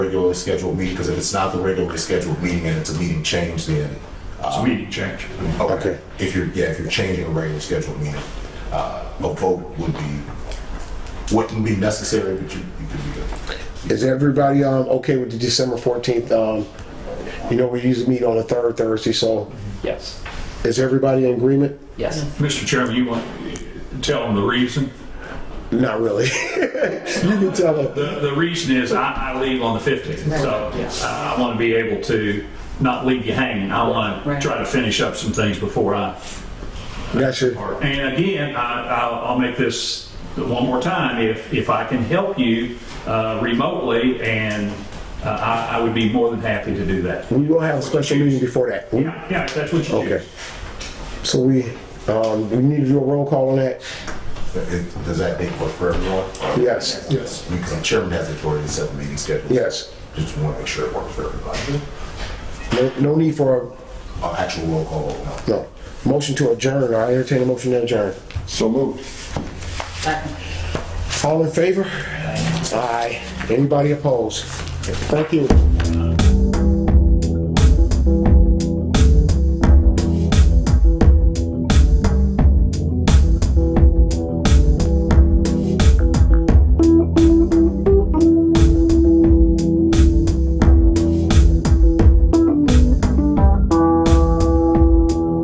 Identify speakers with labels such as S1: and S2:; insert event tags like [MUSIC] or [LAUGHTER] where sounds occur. S1: regularly scheduled meeting, because if it's not the regularly scheduled meeting and it's a meeting change, then.
S2: It's a meeting change.
S1: Okay. If you're, yeah, if you're changing a regular scheduled meeting, uh, a vote would be, wouldn't be necessary, but you, you could be good.
S3: Is everybody um, okay with the December 14th? Um, You know, we usually meet on the third Thursday, so
S4: Yes,
S3: is everybody in agreement?
S4: yes.
S2: Mr. Chairman, you want, tell them the reason?
S3: Not really. [LAUGHS] You can tell them.
S2: The, the reason is I, I leave on the 15th, so I want to be able to not leave you hanging. I want to
S5: Right.
S2: try to finish up some things before I
S3: That's it.
S2: And again, I, I'll, I'll make this one more time. If, if I can help you uh, remotely, and uh, I, I would be more than happy to do that.
S3: We will have a special meeting before that. We-
S2: Yeah, yeah, if that's what you
S3: Okay.
S2: choose.
S3: So we, um, we need to do a roll call on that?
S1: It- Does that make work for everyone?
S3: Yes,
S1: Yes. Because the chairman has authority to set the meeting schedule.
S3: yes.
S1: Just want to make sure it works for everybody.
S3: No, no need for, a
S1: Uh, Actual roll call, no.
S3: no. Motion to adjourn, I entertain a motion to adjourn.
S6: So moved.
S3: All in favor? Aye. Anybody opposed? Thank you.